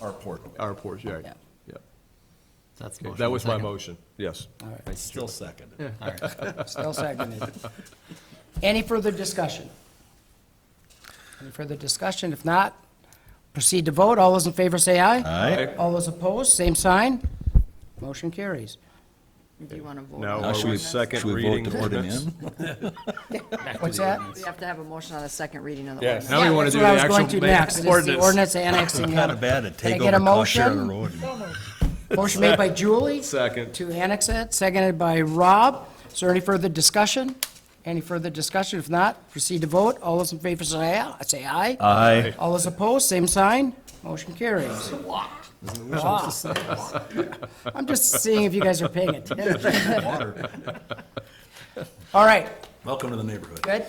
Our port. Our portion, right. Yeah. Yeah. That's the Okay, motion. That was my Second. motion, yes. All right. Still seconded. All right, still seconded. Any further discussion? Any further discussion? If not, proceed to vote. All those in favor say aye. Aye. All those opposed, same sign. Motion carries. Do you want to vote? Now, on are the we ordinance? second Should we vote reading to put him ordinance? in? What's that? We have to have a motion on a second reading of the Yeah, ordinance. now we Yeah, wanna that's do what I the was going actual to ma- next, is the ordinance. ordinance annexing. Not a bad to Can I take get over a cost share on the motion? road. Motion made by Julie. Second. To annex it, seconded by Rob. Is there any further discussion? Any further discussion? If not, proceed to vote. All those in favor say aye. Say aye. Aye. All those opposed, same sign. Motion carries. Wow. I'm just seeing if you guys are paying attention. All right, Welcome to the neighborhood. good?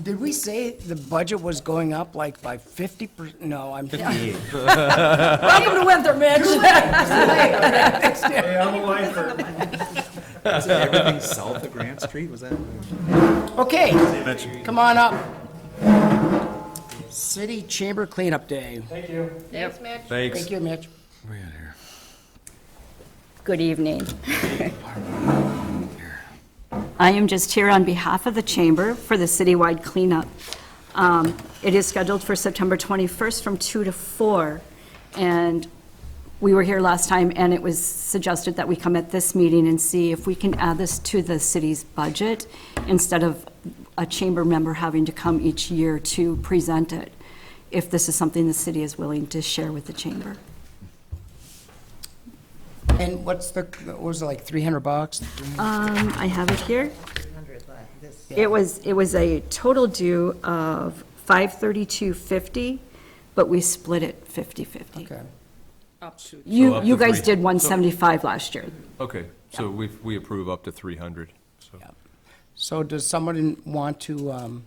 Did we say the budget was going up like by 50%? No, I'm. Welcome to winter, Mitch. Everything south of Grant Street, was that? Okay, come on up. City Chamber Cleanup Day. Yep. Thank you, Mitch. Good evening. I am just here on behalf of the chamber for the citywide cleanup. Um, It is scheduled for September 21st from 2 to 4, and we were here last time, and it was suggested that we come at this meeting and see if we can add this to the city's budget instead of a chamber member having to come each year to present it, if this is something the city is willing to share with the chamber. And what's the, what was it, like 300 bucks? Um, I have it here. It was, it was a total due of five thirty-two fifty, but we split it fifty-fifty. Okay. Up to- So You, up you to guys three. did one seventy-five last year. Okay, so we, we approve up to 300, so. So does somebody want to um,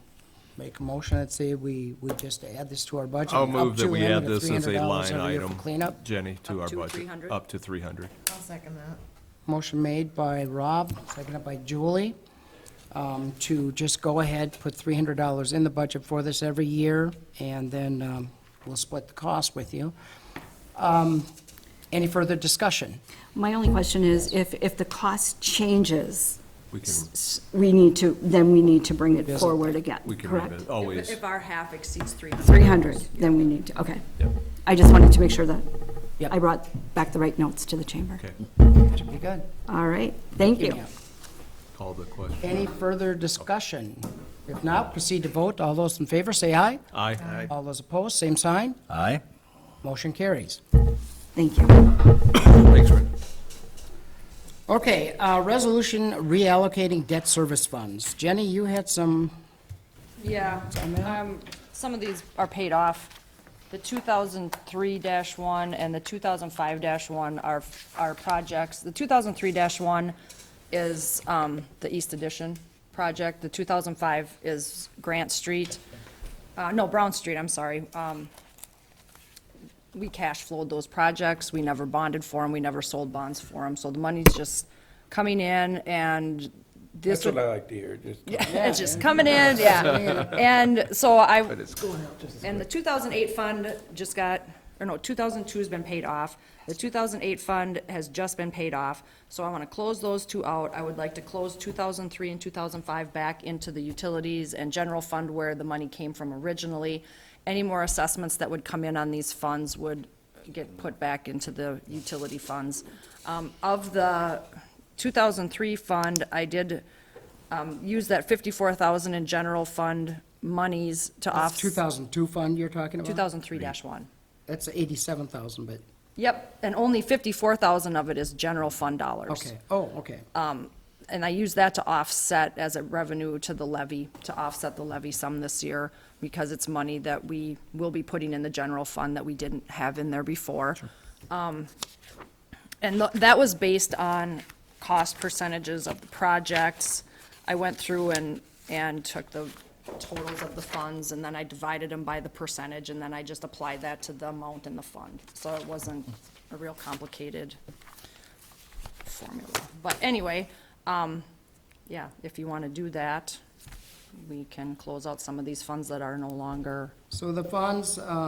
make a motion and say we, we just add this to our budget? I'll up move that to we and add the this as a $300 line every year for item, Cleanup. Jenny, to Up our to budget. 300? Up to 300. I'll second that. Motion made by Rob, seconded by Julie, um, to just go ahead, put $300 in the budget for this every year, and then um, we'll split the cost with you. Um, Any further discussion? My only question is, if, if the cost changes, We can, s- s- we need to, then we need to bring it Revisit. forward again, we can correct? revisit, always. If our half exceeds three hundred. Three hundred, then we need to, okay. I just wanted to make sure that Yep. I brought back the right notes to the chamber. Okay, Should be good. All right, thank you. Yeah. call the question. Any further discussion? If not, proceed to vote. All those in favor, say aye. Aye. All those opposed, same sign. Aye. Motion carries. Thank you. Thanks, Rick. Okay, uh, resolution reallocating debt service funds. Jenny, you had some, Yeah, um, some of these are paid off. The two thousand three one and the two thousand five one are, are projects. The two thousand three one is, um, the East Addition project. The two thousand five is Grant Street, uh, no, Brown Street, I'm sorry. Um, we cash flowed those projects, we never bonded for them, we never sold bonds for them, so the money's just coming in, and this That's would what I like to hear, just. it's just coming in, yeah. And so I, and the 2008 fund just got, or no, 2002's been paid off. The 2008 fund has just been paid off, so I want to close those two out. I would like to close 2003 and 2005 back into the utilities and general fund where the money came from originally. Any more assessments that would come in on these funds would get put back into the utility funds. Um, Of the 2003 fund, I did um, use that 54,000 in general fund monies to that's off, 2002 fund you're talking about? 2003-1. That's 87,000, but, Yep, and only 54,000 of it is general fund dollars. okay, oh, okay. And I use that to offset as a revenue to the levy, to offset the levy sum this year, because it's money that we will be putting in the general fund that we didn't have in there before. Um, And tho- that was based on cost percentages of the projects. I went through and, and took the totals of the funds, and then I divided them by the percentage, and then I just applied that to the amount in the fund. So it wasn't a real complicated formula. But anyway, um, yeah, if you want to do that, we can close out some of these funds that are no longer So the funds, uh,